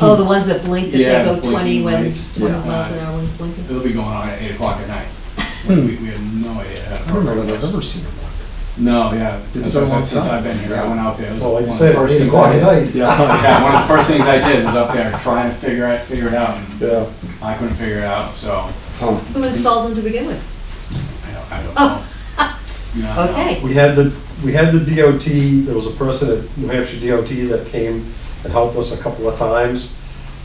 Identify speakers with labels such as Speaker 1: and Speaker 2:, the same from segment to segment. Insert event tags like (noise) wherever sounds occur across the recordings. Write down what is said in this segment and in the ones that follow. Speaker 1: Oh, the ones that blink, that
Speaker 2: Yeah,
Speaker 1: say go
Speaker 2: the
Speaker 1: twenty
Speaker 2: blinking
Speaker 1: when
Speaker 2: lights.
Speaker 1: twenty
Speaker 2: Yeah.
Speaker 1: miles an hour one's blinking.
Speaker 2: It'll be going on at eight o'clock at night. We, we have no idea. how to
Speaker 3: Hmm. I don't know
Speaker 2: program
Speaker 3: that I've
Speaker 2: those.
Speaker 3: ever seen it.
Speaker 2: No, yeah.
Speaker 3: It's
Speaker 2: Since-
Speaker 3: been a long
Speaker 2: Since
Speaker 3: time.
Speaker 2: I've been here, I
Speaker 3: Yeah.
Speaker 2: went out there. It was
Speaker 4: Well, like you
Speaker 2: one of
Speaker 4: said,
Speaker 2: the
Speaker 4: it's
Speaker 2: first
Speaker 4: eight
Speaker 2: things
Speaker 4: o'clock
Speaker 2: I
Speaker 4: at
Speaker 2: did.
Speaker 3: (laughs)
Speaker 4: night.
Speaker 3: Yeah.
Speaker 2: Yeah, one of the first things I did was up there trying to figure it, figure it out. and
Speaker 3: Yeah.
Speaker 2: I couldn't figure it out, so
Speaker 3: Huh.
Speaker 1: Who installed them to begin with?
Speaker 2: I don't, I don't know.
Speaker 1: (laughs)
Speaker 2: You know. I don't know.
Speaker 1: Oh. Okay.
Speaker 4: We had the, we had the DOT, there was a person at New Hampshire DOT that came and helped us a couple of times,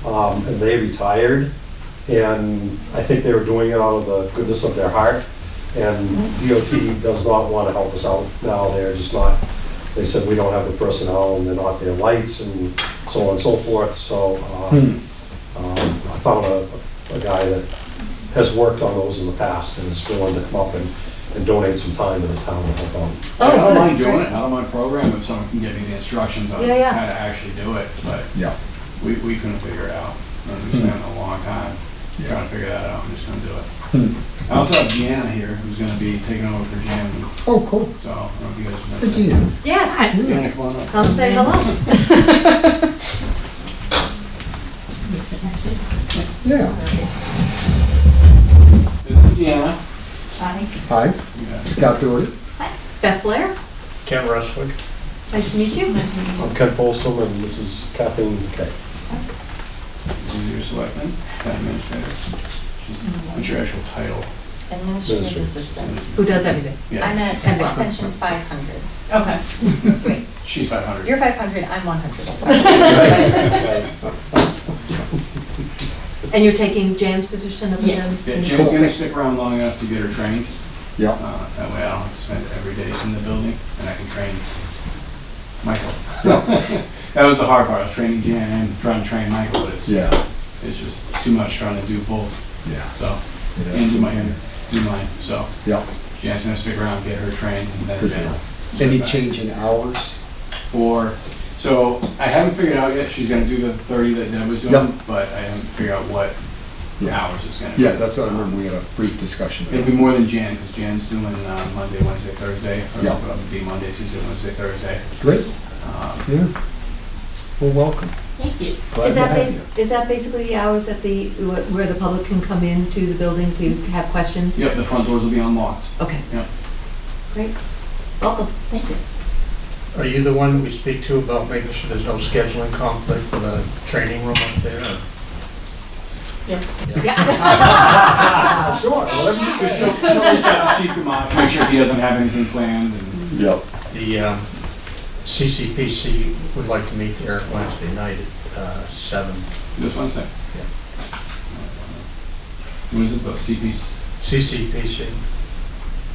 Speaker 4: um, and they retired. And I think they were doing it out of the goodness of their heart, and DOT does not want to help us out now, they're just not, they said we don't have the personnel, and they're not their lights, and so on and so forth, so, uh,
Speaker 3: Hmm.
Speaker 4: um, I found a, a guy that has worked on those in the past and is willing to come up and, and donate some time to the town to help out.
Speaker 1: Oh,
Speaker 2: I don't
Speaker 1: good,
Speaker 2: mind doing
Speaker 1: great.
Speaker 2: it, I don't mind programming if someone can give me the instructions on how
Speaker 1: Yeah,
Speaker 2: to
Speaker 1: yeah.
Speaker 2: actually do it, but
Speaker 3: Yeah.
Speaker 2: we, we couldn't figure it out. And we spent
Speaker 3: Hmm.
Speaker 2: a long time trying to figure that out, I'm just gonna do it.
Speaker 3: Hmm.
Speaker 2: I also have Deanna here, who's gonna be taking over for Jim,
Speaker 3: Oh, cool.
Speaker 2: so I don't know if you guys
Speaker 3: Good
Speaker 2: have
Speaker 3: to
Speaker 2: met.
Speaker 3: you.
Speaker 1: Yes,
Speaker 2: Deanna, come on up.
Speaker 1: I'll say hello.
Speaker 3: Yeah.
Speaker 2: This is Deanna.
Speaker 3: Hi,
Speaker 2: Yeah.
Speaker 3: Scott Doherty.
Speaker 1: Beth Blair,
Speaker 4: Ken Rustwick.
Speaker 1: nice to meet you.
Speaker 4: I'm Ken Folsom and this is Kathleen Kay.
Speaker 2: This is your selectman, town administrator. She's- What's your actual title?
Speaker 5: Administrative assistant.
Speaker 1: Who does everything?
Speaker 5: I'm
Speaker 2: Yeah,
Speaker 5: at at extension 500.
Speaker 6: Okay.
Speaker 5: Wait,
Speaker 2: she's five hundred.
Speaker 5: you're 500, I'm 100, (laughs) sorry.
Speaker 1: And you're taking Jan's position up
Speaker 5: Yes.
Speaker 1: again?
Speaker 2: Yeah, Jim's gonna stick around long enough to get her trained,
Speaker 3: Yeah.
Speaker 2: uh, that way I don't have to spend every day in the building, and I can train Michael. (laughs) That was the hard part, I was training Jan and trying to train Michael, but it's,
Speaker 3: Yeah.
Speaker 2: it's just too much trying to do both,
Speaker 3: Yeah.
Speaker 2: so,
Speaker 3: It
Speaker 2: and
Speaker 3: is.
Speaker 2: do my, and do mine, so.
Speaker 3: Yeah.
Speaker 2: Jan's gonna stick around, get her trained, and then
Speaker 3: Good
Speaker 2: Jan.
Speaker 3: deal. Any change in hours?
Speaker 2: for, so I haven't figured out yet, she's gonna do the thirty that Deb was
Speaker 3: Yep.
Speaker 2: doing, but I haven't figured out what
Speaker 3: Yeah.
Speaker 2: hours it's gonna be.
Speaker 3: Yeah, that's what I remember. We had a brief discussion.
Speaker 2: It'll be more than Jan, because Jan's doing uh, Monday, Wednesday, Thursday, or
Speaker 3: Yeah.
Speaker 2: it'll be Monday, Tuesday, Wednesday, Thursday.
Speaker 3: Great.
Speaker 2: Um,
Speaker 3: Yeah. Well, welcome.
Speaker 6: Thank you.
Speaker 3: Glad
Speaker 1: Is
Speaker 3: to
Speaker 1: that
Speaker 3: have you.
Speaker 1: bas, is that basically the hours that the, wh- where the public can come into the building to have questions?
Speaker 2: Yep, the front doors will be unlocked.
Speaker 1: Okay.
Speaker 2: Yep.
Speaker 1: Great. Welcome.
Speaker 6: Thank you.
Speaker 7: Are you the one that we speak to about making sure there's no scheduling conflict for the training room up there? or-
Speaker 1: (laughs)
Speaker 4: Sure. whatever you-
Speaker 2: She'll- she'll reach out to Chief Gamache, Make sure he doesn't have anything planned, and
Speaker 3: Yep.
Speaker 7: The um, CCPC would like to meet there Wednesday night at uh, seven.
Speaker 2: just one sec.
Speaker 7: Yeah.
Speaker 2: What is it, the CP's?
Speaker 7: CCPC,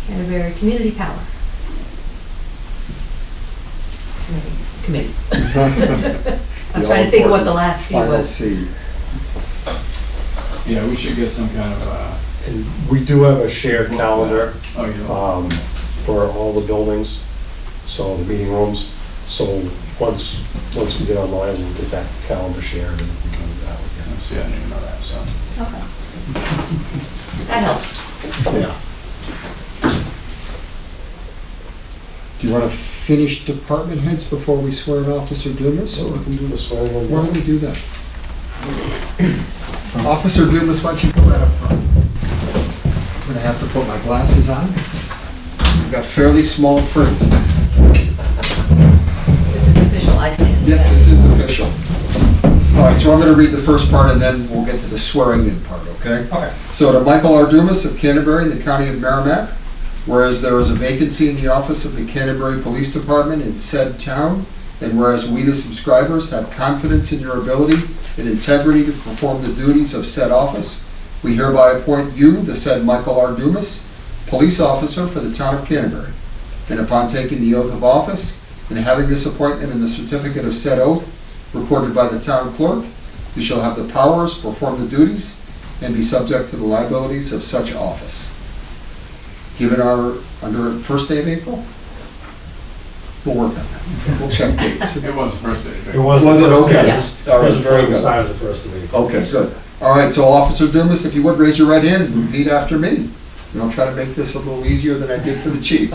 Speaker 1: Canterbury Community Power. Committee.
Speaker 3: (laughs)
Speaker 1: I was
Speaker 3: The
Speaker 1: trying to think of what the
Speaker 3: all-important
Speaker 1: last C
Speaker 3: Final
Speaker 1: was.
Speaker 3: C.
Speaker 2: Yeah, we should get some kind of, uh,
Speaker 4: And we do have a shared calendar
Speaker 2: oh, you
Speaker 3: Uh,
Speaker 2: know,
Speaker 4: um, for all the buildings, so the meeting rooms. So once, once we get online, we'll get that calendar shared and we can do that with you.
Speaker 2: see, I didn't even know that, so.
Speaker 5: Okay.
Speaker 1: That helps.
Speaker 3: Yeah. Do you want to finish department heads before we swear in Officer Dumas?
Speaker 4: So
Speaker 3: Or
Speaker 4: we can do the swearing.
Speaker 3: why don't we do that? Officer Dumas, why don't you come right up front? I'm going to have to put my glasses on. We've got fairly small print.
Speaker 1: This is official, I stand.
Speaker 3: Yeah, this is official. All right, so I'm going to read the first part and then we'll get to the swearing-in part, okay?
Speaker 7: Okay.
Speaker 3: So to Michael R. Dumas of Canterbury in the County of Merrimack, whereas there is a vacancy in the office of the Canterbury Police Department in said town, and whereas we, the subscribers, have confidence in your ability and integrity to perform the duties of said office, we hereby appoint you, the said Michael R. Dumas, police officer for the town of Canterbury. And upon taking the oath of office and having this appointment and the certificate of said oath recorded by the town clerk, you shall have the powers, perform the duties, and be subject to the liabilities of such office. Given our, under first day of April? We'll work on that. We'll check dates.
Speaker 2: It was the first day. right?
Speaker 4: It was.
Speaker 3: Was it
Speaker 4: the first
Speaker 3: okay?
Speaker 4: day.
Speaker 3: Yeah. That was very
Speaker 4: It was
Speaker 3: good.
Speaker 4: signed the first of April.
Speaker 3: Okay, good. All right, so Officer Dumas, if you would, raise your right hand and repeat after me. And I'll try to make this a little easier than I did for the chief.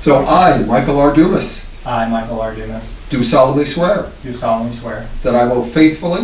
Speaker 3: So I, Michael R. Dumas,
Speaker 8: I, Michael R. Dumas,
Speaker 3: do solemnly swear
Speaker 8: do solemnly swear
Speaker 3: that I will faithfully,